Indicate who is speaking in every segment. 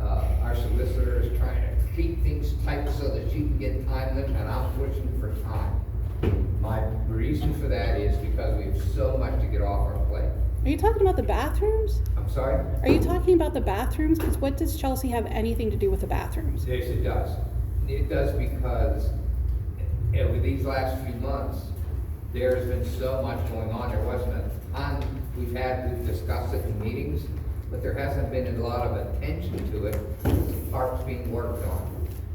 Speaker 1: Uh, can get time limit, and I'm pushing for time. My reason for that is because we have so much to get off our plate.
Speaker 2: Are you talking about the bathrooms?
Speaker 1: I'm sorry?
Speaker 2: Are you talking about the bathrooms? Because what does Chelsea have anything to do with the bathrooms?
Speaker 1: Yes, it does. It does because over these last few months, there's been so much going on. There wasn't a ton, we've had, we've discussed it in meetings, but there hasn't been a lot of attention to it. Parts being worked on.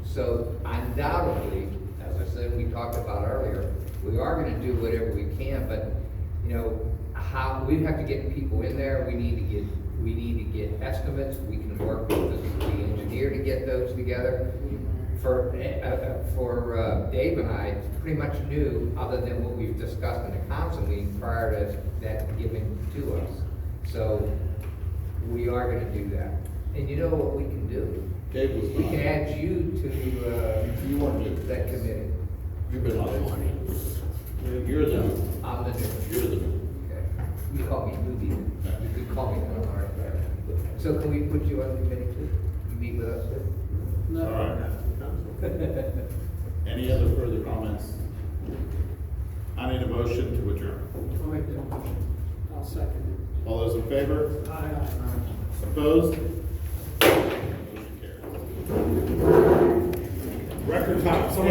Speaker 1: So undoubtedly, as I said, we talked about earlier, we are gonna do whatever we can, but, you know, how, we have to get people in there, we need to get, we need to get estimates, we can work with the the engineer to get those together. For, eh, uh, uh, for uh, Dave and I, it's pretty much new, other than what we've discussed in the council meeting prior to that giving to us. So, we are gonna do that. And you know what we can do?
Speaker 3: Dave was
Speaker 1: We can
Speaker 3: not.
Speaker 1: add you to, uh,
Speaker 3: You weren't new.
Speaker 1: that committee.
Speaker 3: You've been on You're the, new.
Speaker 1: I'm the new.
Speaker 3: you're the, new.
Speaker 1: Okay. You call me newbie. You could call me that, all right. So can we put you on the committee too? You meet with us too?
Speaker 3: all right. Any other further comments? I need a motion to adjourn.
Speaker 4: I'll make that motion. I'll second
Speaker 3: All those in favor?
Speaker 4: it. Aye.
Speaker 3: Opposed? Motion carries. Record time, someone